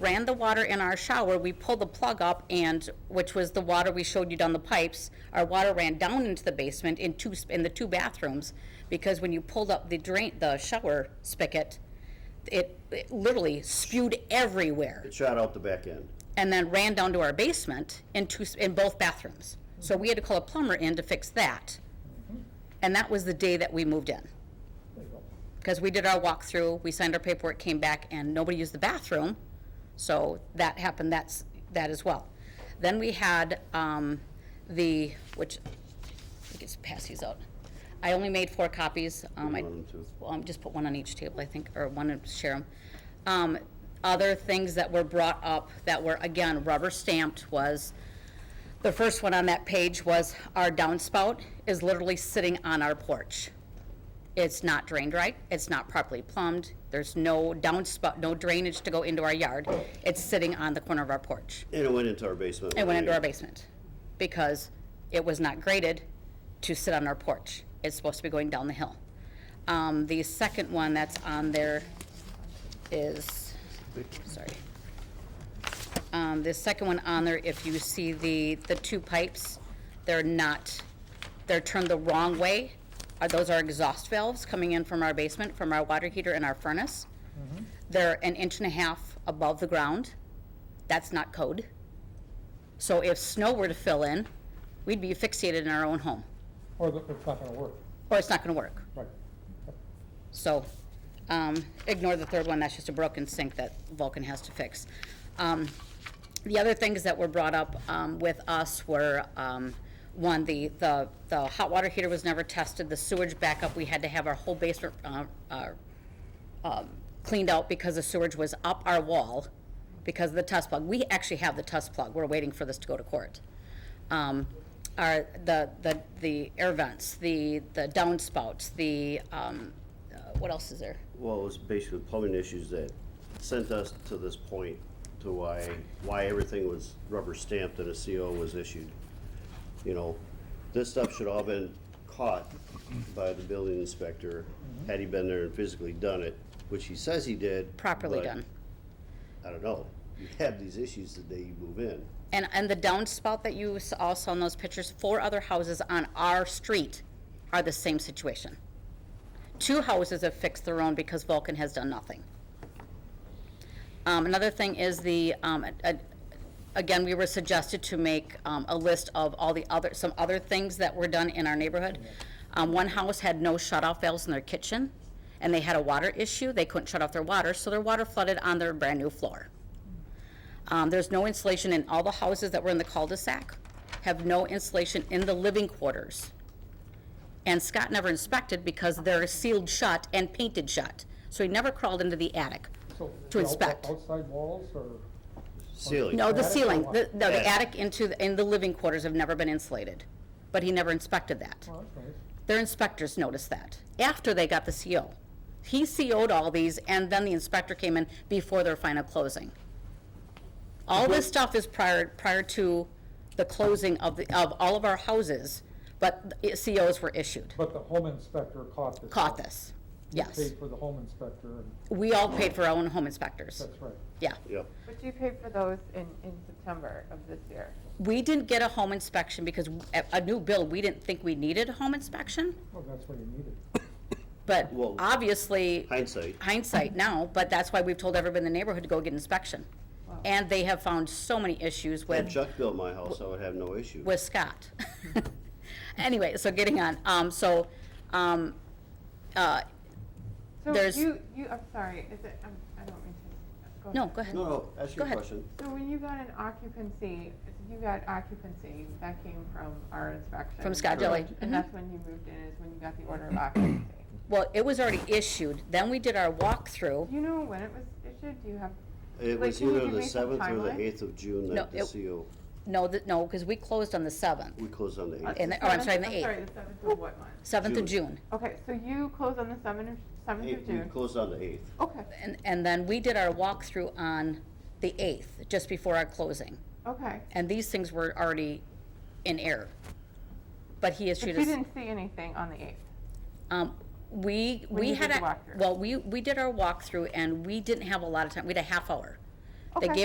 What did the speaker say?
ran the water in our shower, we pulled the plug up and, which was the water we showed you down the pipes, our water ran down into the basement in two, sp- in the two bathrooms, because when you pulled up the drain, the shower spigot, it it literally spewed everywhere It shot out the back end. and then ran down to our basement in two, in both bathrooms. So we had to call a plumber in to fix that. And that was the day that we moved in. Because we did our walkthrough, we signed our paperwork, came back, and nobody used the bathroom. So that happened, that's, that as well. Then we had, um, the, which, I guess pass these out. I only made four copies. Um, I, You want them well, um, just put one on each table, I think, or one and share them. Um, other things that were brought up that were, again, rubber stamped was, the first one on that page was our downspout is literally sitting on our porch. It's not drained right, it's not properly plumbed, there's no downspout, no drainage to go into our yard. It's sitting on the corner of our porch. And it went into our basement. It went into our basement because it was not graded to sit on our porch. It's supposed to be going down the hill. Um, the second one that's on there is, sorry. Um, the second one on there, if you see the, the two pipes, they're not, they're turned the wrong way. Are, those are exhaust valves coming in from our basement, from our water heater and our furnace. They're an inch and a half above the ground. That's not code. So if snow were to fill in, we'd be asphyxiated in our own home, Or the- it's not gonna work, or it's not gonna work. right. So, um, ignore the third one, that's just a broken sink that Vulcan has to fix. Um, the other things that were brought up, um, with us were, um, one, the, the, the hot water heater was never tested, the sewage backup, we had to have our whole basement, uh, uh, um, cleaned out because the sewage was up our wall because of the test plug. We actually have the test plug. We're waiting for this to go to court. Um, Our, the, the, the air vents, the, the downspouts, the, um, uh, what else is there? Well, it was basically plumbing issues that sent us to this point to why, why everything was rubber stamped and a CO was issued. You know, this stuff should all been caught by the building inspector had he been there and physically done it, which he says he did. Properly but done. I don't know. You have these issues the day you move in. And, and the downspout that you s- all saw in those pictures, four other houses on our street are the same situation. Two houses have fixed their own because Vulcan has done nothing. Um, another thing is the, um, a- a- again, we were suggested to make, um, a list of all the other, some other things that were done in our neighborhood. Um, one house had no shut-off valves in their kitchen, and they had a water issue, they couldn't shut off their water, so their water flooded on their brand-new floor. Um, there's no insulation in all the houses that were in the cul-de-sac, have no insulation in the living quarters. And Scott never inspected because they're sealed shut and painted shut, so he never crawled into the attic. So, To out- inspect. Outside walls or, Ceiling. No, the ceiling, the, no, the Attic. attic into, the- in the living quarters have never been insulated, but he never inspected that. oh, that's nice. Their inspectors noticed that, after they got the CO. He CO'd all these, and then the inspector came in before their final closing. All this stuff is prior, prior to the closing of, the of all of our houses, but the COs were issued. But the home inspector caught this. Caught this, You yes. Paid for the home inspector, and We all paid for our own home inspectors, that's right. yeah. Yep. But you paid for those in, in September of this year. We didn't get a home inspection because a, a new build, we didn't think we needed a home inspection, Well, that's what you needed. but Well, obviously. Hindsight. hindsight now, but that's why we've told everybody in the neighborhood to go get inspection. And they have found so many issues Had with, Chuck built my house, I would have no issue. with Scott. Anyway, so getting on, um, so, um, uh, So There's- you, you, I'm sorry, is it, I'm, I don't mean to. no, go ahead. No, no, ask Go your ahead. question. So when you got an occupancy, you got occupancy, that came from our inspection. From Scott Jelly. Mm-hmm. And that's when you moved in, is when you got the order of occupancy. Well, it was already issued, then we did our walkthrough. Do you know when it was issued? Do you have? It like, was can you either give the me some seventh or timeline? the eighth of June No, that the it- CO, No, that, no, because we closed on the seventh, we closed on the eighth. And the- oh, I'm sorry, seventh- the I'm eighth. sorry, the seventh of what month? seventh of June. Okay, so you closed on the seventh, of- seventh Eight- of We June. closed on the eighth. Okay, And, and then we did our walkthrough on the eighth, just before our closing. okay. And these things were already in error. But he But issued you us. didn't see anything on the eighth. Um, we, When we you had did the a, walkthrough. well, we, we did our walkthrough and we didn't have a lot of time, we had a half hour. They Okay. gave